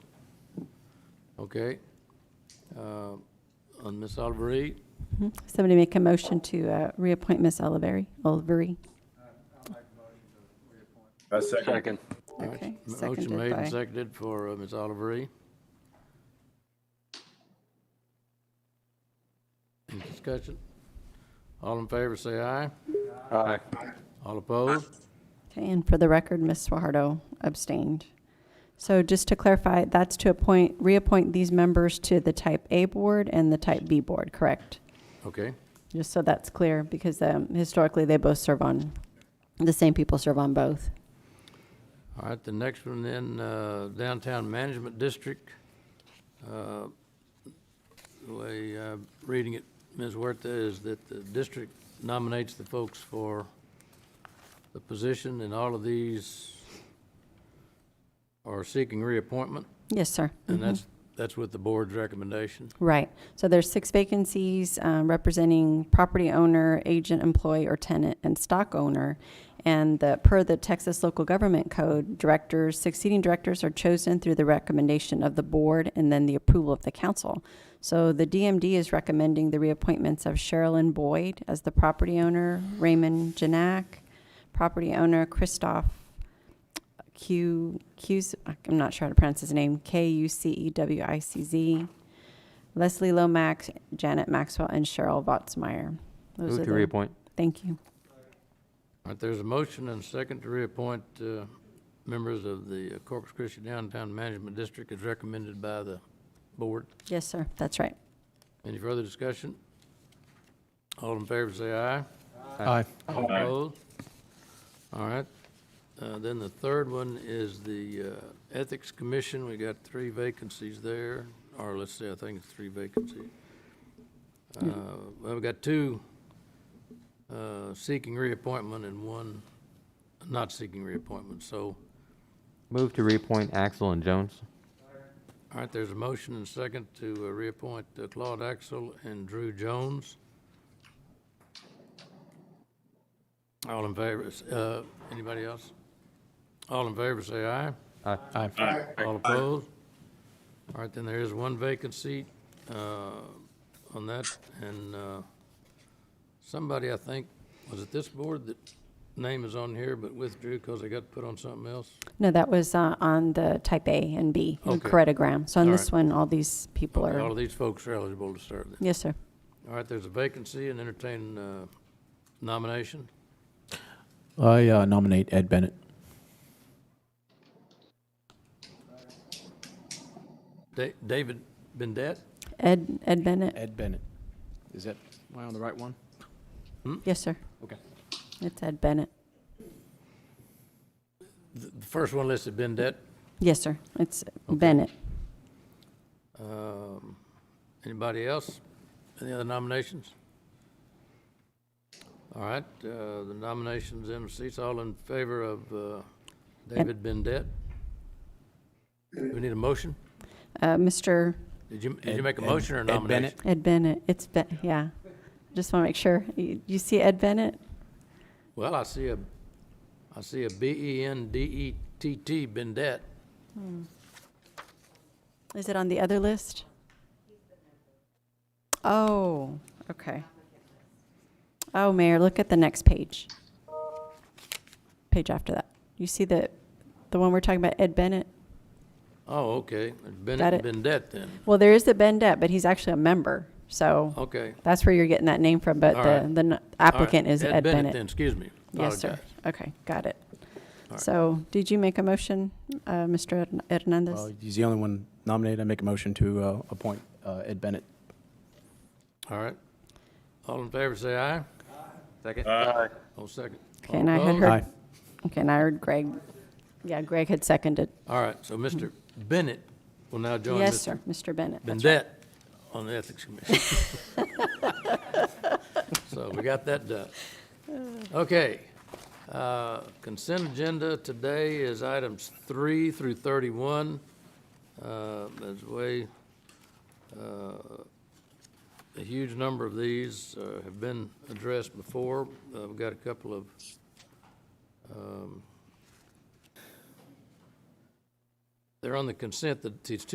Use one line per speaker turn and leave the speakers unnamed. Okay. Uh, On Ms. Oliver,
Somebody make a motion to uh, reappoint Ms. Oliveri, Oliveri.
I second.
Second.
Okay,
Motion
seconded
made and
by,
seconded for uh, Ms. Oliver. Any discussion? All in favor, say aye.
Aye.
All opposed?
okay, and for the record, Ms. Swahardo abstained. So just to clarify, that's to appoint, reappoint these members to the Type A Board and the Type B Board, correct?
Okay,
Just so that's clear, because um, historically, they both serve on, the same people serve on both.
all right, the next one then, uh, Downtown Management District. Uh, The way I'm reading it, Ms. Huerta, is that the district nominates the folks for the position, and all of these are seeking reappointment,
Yes, sir.
and that's, that's with the board's recommendation.
Right. So there's six vacancies um, representing property owner, agent, employee, or tenant, and stock owner. And the, per the Texas Local Government Code, directors, succeeding directors are chosen through the recommendation of the board and then the approval of the council. So the DMD is recommending the reappointments of Sherilyn Boyd as the property owner, Raymond Janak, property owner, Christoph Q, Q's, I'm not sure how to pronounce his name, K U C E W I C Z, Leslie Lomax, Janet Maxwell, and Cheryl Botzmeyer. Those are
Move
the-
to reappoint.
Thank you.
All right, there's a motion and a second to reappoint uh, members of the Corpus Christi Downtown Management District as recommended by the board.
Yes, sir, that's right.
Any further discussion? All in favor, say aye.
Aye.
All opposed? All right. Uh, Then the third one is the uh, Ethics Commission. We got three vacancies there, or let's say, I think it's three vacancies. Uh, Well, we got two uh, seeking reappointment and one not seeking reappointment. So,
Move to reappoint Axel and Jones.
all right, there's a motion and second to uh, reappoint uh, Claude Axel and Drew Jones. All in favor, s- uh, anybody else? All in favor, say aye.
Aye.
Aye.
All opposed? All right, then there is one vacant seat uh, on that, and uh, somebody, I think, was it this board that name is on here but withdrew because they got put on something else?
No, that was uh, on the type A and B in
Okay.
Correttogram. So on
All
this
right.
one, all these people
All
are,
of these folks are eligible to serve then.
yes, sir.
All right, there's a vacancy and entertain uh, nomination.
I uh, nominate Ed Bennett.
Da- David Bendet?
Ed, Ed Bennett?
Ed Bennett. Is that, am I on the right one?
Yes, sir.
Okay.
It's Ed Bennett.
The the first one listed, Bendet.
Yes, sir. It's Bennett.
Um, Anybody else? Any other nominations? All right, uh, the nominations, in seats, all in favor of uh, David Bendet? Do we need a motion?
Uh, Mr.
Did you, did you
Ed-
make a
Ed-
motion or a
Ed Bennett.
nomination?
Ed Bennett, it's, Ben- yeah. Just want to make sure. You you see Ed Bennett?
Well, I see a, I see a E B-E-N-D-E-T-T, Bendet.
Is it on the other list? Oh, okay. Oh, Mayor, look at the next page. Page after that. You see the, the one we're talking about, Ed Bennett?
Oh, okay,
Got
Bennett,
it.
Bendet then,
Well, there is the Bendette, but he's actually a member, so
okay.
that's where you're getting that name from, but
Oh. All
the,
right.
the n-
All right,
applicant is Ed
then,
Bennett.
excuse me.
Yes, sir.
Apologize.
Okay, got it.
right.
So, did you make a motion, uh, Mr. Hern-
Well,
Hernandez?
he's the only one nominated. I make a motion to uh, appoint uh, Ed Bennett.
All right. All in favor, say aye.
Second.
All second.
Okay, and I had
Opposed?
heard-
Aye.
Okay, and I heard Greg, yeah, Greg had seconded.
All right, so Mr. Bennett will now join
Yes,
Mr.
sir, Mr. Bennett. that's right.
Bendet on the Ethics Commission. So we got that done. Okay. uh, Consent agenda today is items three through 31. Uh, As way, uh, a huge number of these uh, have been addressed before. Uh, We've got a couple of um, They're on the consent, that it's